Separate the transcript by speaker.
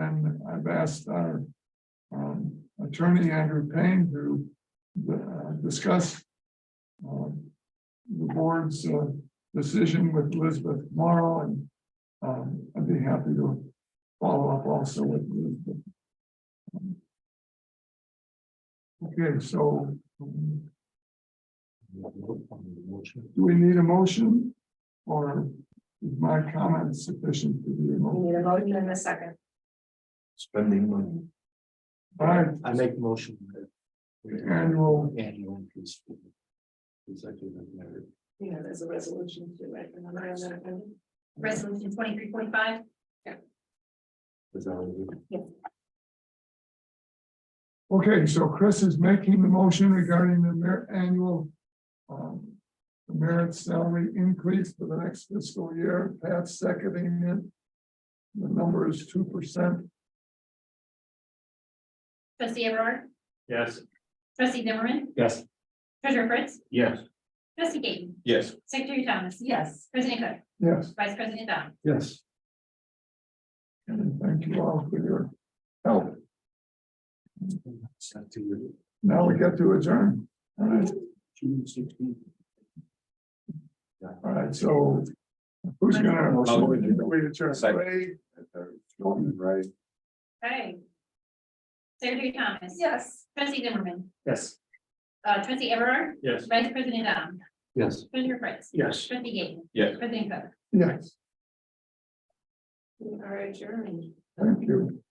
Speaker 1: and I've asked our um, attorney Andrew Payne to uh, discuss um, the board's uh, decision with Elizabeth tomorrow, and um, I'd be happy to follow up also with Elizabeth. Okay, so um, do we need a motion? Or is my comment sufficient to be a
Speaker 2: We
Speaker 1: motion?
Speaker 2: need a motion in a second.
Speaker 3: Spending money.
Speaker 1: All right,
Speaker 3: I make motion. that we
Speaker 1: the annual,
Speaker 3: Annual increase. for the Executive matter.
Speaker 2: You know, there's a resolution to it. remember, and then-
Speaker 4: Resolution twenty-three twenty-five,
Speaker 3: Is that what we-
Speaker 1: okay, so Chris is making the motion regarding the mer- annual. Um, merit salary increase for the next fiscal year, Pat's seconding it. The number is two percent,
Speaker 4: trustee Everard,
Speaker 3: Yes.
Speaker 4: trustee Zimmerman,
Speaker 3: Yes.
Speaker 4: treasurer Fritz,
Speaker 3: Yes.
Speaker 4: trustee Gaten,
Speaker 3: Yes.
Speaker 4: secretary Thomas,
Speaker 2: Yes,
Speaker 4: president Cook,
Speaker 1: yes,
Speaker 4: vice president Dom.
Speaker 3: Yes.
Speaker 1: and thank you all for your help.
Speaker 3: It's not too good.
Speaker 1: Now we get to adjourn. All right,
Speaker 3: June 16th.
Speaker 1: all right, so. Who's gonna?
Speaker 3: I'll-
Speaker 1: Wait, adjourn.
Speaker 3: Second. Right.
Speaker 4: Okay. Secretary Thomas.
Speaker 2: yes.
Speaker 4: Trustee Zimmerman,
Speaker 3: Yes.
Speaker 4: uh, trustee Everard,
Speaker 3: Yes.
Speaker 4: vice president Dom,
Speaker 3: Yes.
Speaker 4: treasurer Fritz,
Speaker 3: Yes.
Speaker 4: trustee Gaten,
Speaker 3: Yes.
Speaker 4: president Cook.
Speaker 1: Yes,
Speaker 2: We are adjourned.
Speaker 1: thank you.